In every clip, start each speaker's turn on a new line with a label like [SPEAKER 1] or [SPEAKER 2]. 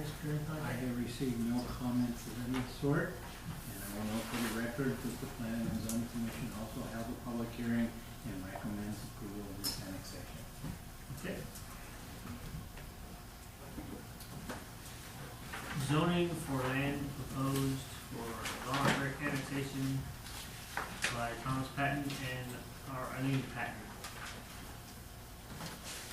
[SPEAKER 1] I have received no comments of any sort, and I will note for the record that the planning and zoning commission also held a public hearing and recommends approval of this annexation.
[SPEAKER 2] Okay. Zoning for land proposed for voluntary annexation by Thomas Patton and our Eileen Patton.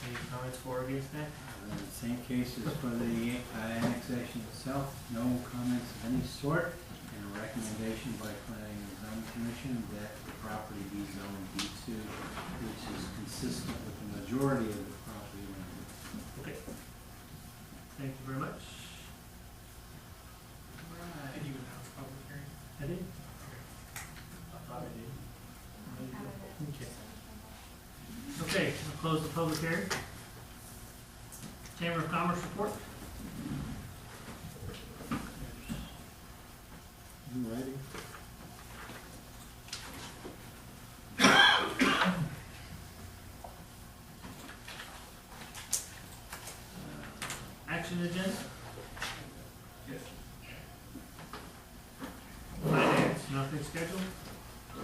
[SPEAKER 2] Any comments for or against that?
[SPEAKER 1] Uh, The Same case is for the uh, annexation itself, no comments of any sort, and a recommendation by planning and zoning commission that the property be zoned B two, which is consistent with the majority of the property. line.
[SPEAKER 2] Okay. Thank you very much. Alright.
[SPEAKER 3] Did you announce public hearing?
[SPEAKER 2] I did? I thought I did. Okay. Okay, I'll close the public hearing. Chamber of Commerce report?
[SPEAKER 1] You ready?
[SPEAKER 2] uh, Action agenda?
[SPEAKER 3] Yes.
[SPEAKER 2] Finance, nothing scheduled.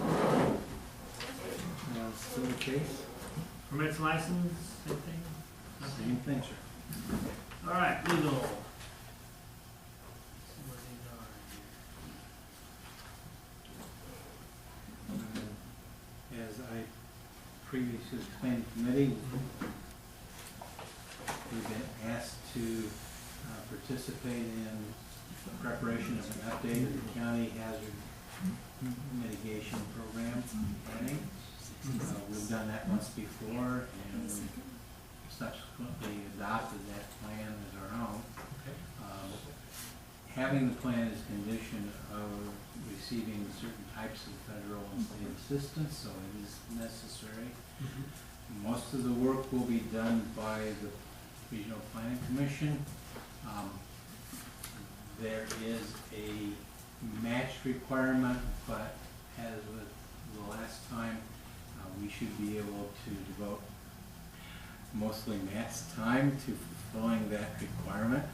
[SPEAKER 1] Uh, Still the case?
[SPEAKER 2] Permits, license, anything?
[SPEAKER 1] Same
[SPEAKER 2] Nothing.
[SPEAKER 1] thing.
[SPEAKER 2] All right, legal.
[SPEAKER 1] Uh, As I previously explained to committee, we've been asked to uh, participate in the preparation of an update of the county hazard mitigation program planning. Uh, We've done that once before and we subsequently adopted that plan as our own. Um, Having the plan is condition of receiving certain types of federal and state assistance, so it is necessary.
[SPEAKER 2] Mm-hmm.
[SPEAKER 1] Most of the work will be done by the Regional Planning Commission. Um, There is a match requirement, but as with the last time, uh, we should be able to devote mostly Matt's time to fulfilling that requirement.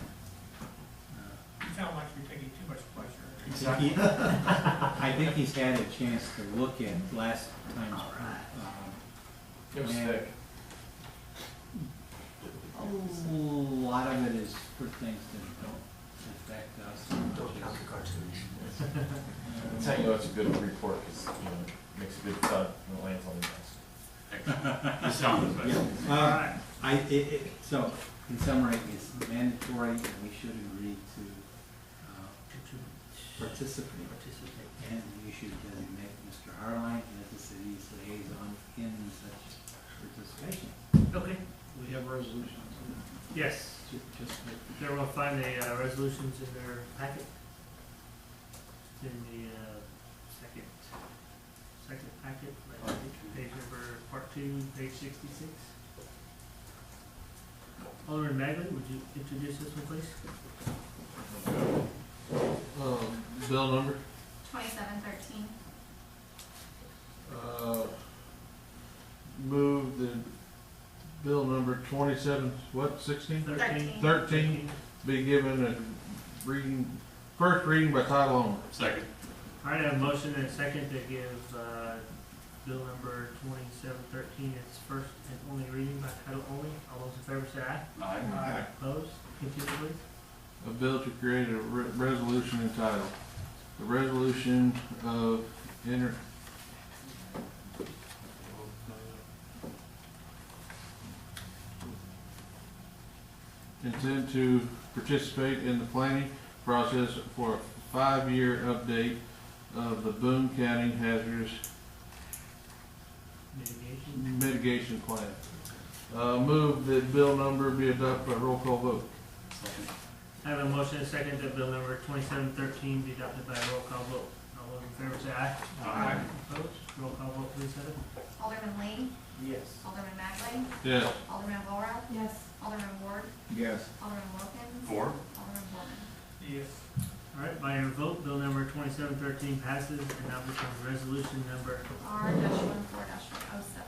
[SPEAKER 1] Uh,
[SPEAKER 3] You sound like you're taking too much pleasure.
[SPEAKER 1] I think he- I think he's had a chance to look at last time's. um,
[SPEAKER 4] It was
[SPEAKER 1] Yeah.
[SPEAKER 4] thick.
[SPEAKER 1] A lot of it is for things that don't affect us. which is-
[SPEAKER 4] That's how you know it's a good report, because, you know, it makes a good thud when it lands on the desk.
[SPEAKER 5] The sound is
[SPEAKER 1] Yeah,
[SPEAKER 5] better.
[SPEAKER 2] All
[SPEAKER 1] uh,
[SPEAKER 2] right,
[SPEAKER 1] I, it, it, so, in summary, it's mandatory and we should agree to, uh, participate.
[SPEAKER 2] participate.
[SPEAKER 1] And we should designate Mr. Harline as the city's liaison in such participation.
[SPEAKER 2] Okay,
[SPEAKER 1] We have resolutions.
[SPEAKER 2] yes,
[SPEAKER 1] Just that
[SPEAKER 2] there will find the uh, resolutions in their packet. In the uh, second, second packet, like, page number, part two, page sixty-six. Alderman Magley, would you introduce this one, please?
[SPEAKER 6] Um, bill number,
[SPEAKER 7] Twenty-seven thirteen.
[SPEAKER 6] uh, move the bill number twenty-seven, what, sixteen?
[SPEAKER 7] Thirteen.
[SPEAKER 6] Thirteen be given a reading, first reading by title only.
[SPEAKER 5] Second.
[SPEAKER 2] All right, I have a motion and a second to give, uh, bill number twenty-seven thirteen its first and only reading by title only. All those in favor say aye.
[SPEAKER 5] Aye.
[SPEAKER 2] Opposed? Continue, please.
[SPEAKER 6] A bill to create a re- resolution entitled, the resolution of inter. Intend to participate in the planning process for a five-year update of the Boone County Hazardous
[SPEAKER 2] Mitigation.
[SPEAKER 6] Mitigation Plan. Uh, move that bill number be adopted by roll call vote.
[SPEAKER 5] Second.
[SPEAKER 2] I have a motion and a second that bill number twenty-seven thirteen be adopted by roll call vote. All those in favor say aye.
[SPEAKER 5] Aye.
[SPEAKER 2] Opposed? Roll call vote, please, Heather.
[SPEAKER 7] Alderman Lee,
[SPEAKER 1] Yes.
[SPEAKER 7] Alderman Magley,
[SPEAKER 6] Yes.
[SPEAKER 7] Alderman Laura,
[SPEAKER 8] Yes.
[SPEAKER 7] Alderman Ward,
[SPEAKER 4] Yes.
[SPEAKER 7] Alderman Wilkins,
[SPEAKER 5] Four.
[SPEAKER 7] Alderman Borman.
[SPEAKER 3] Yes.
[SPEAKER 2] All right, by your vote, bill number twenty-seven thirteen passes and now becomes resolution number
[SPEAKER 7] R dash one four dash one oh seven.